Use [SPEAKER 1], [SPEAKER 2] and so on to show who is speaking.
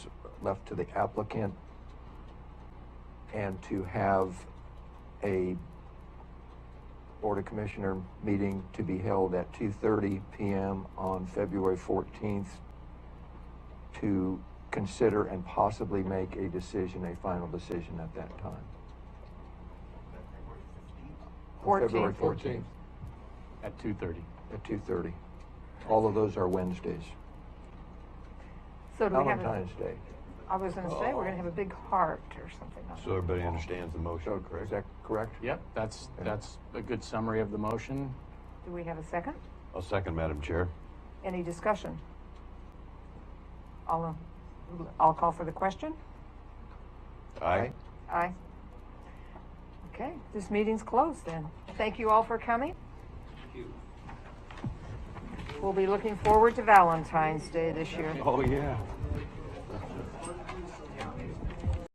[SPEAKER 1] left to the applicant and to have a Board of Commissioner meeting to be held at 2:30 PM on February 14th to consider and possibly make a decision, a final decision at that time. On February
[SPEAKER 2] 14th.
[SPEAKER 1] 14th
[SPEAKER 2] At two thirty.
[SPEAKER 1] at 2:30. All of those are Wednesdays.
[SPEAKER 3] So do we have, a-
[SPEAKER 1] Valentine's Day.
[SPEAKER 3] I was gonna say, we're gonna have a big heart or something. like
[SPEAKER 4] So
[SPEAKER 3] that.
[SPEAKER 4] everybody understands the motion,
[SPEAKER 1] So is
[SPEAKER 4] correct?
[SPEAKER 1] that correct?
[SPEAKER 2] Yep, that's,
[SPEAKER 1] Yeah.
[SPEAKER 2] that's a good summary of the motion.
[SPEAKER 3] Do we have a second?
[SPEAKER 4] I'll second, Madam Chair.
[SPEAKER 3] Any discussion? I'll, uh, I'll call for the question.
[SPEAKER 4] Aye.
[SPEAKER 1] Aye.
[SPEAKER 3] Aye. Okay, this meeting's closed then. Thank you all for coming. We'll be looking forward to Valentine's Day this year.
[SPEAKER 4] Oh, yeah.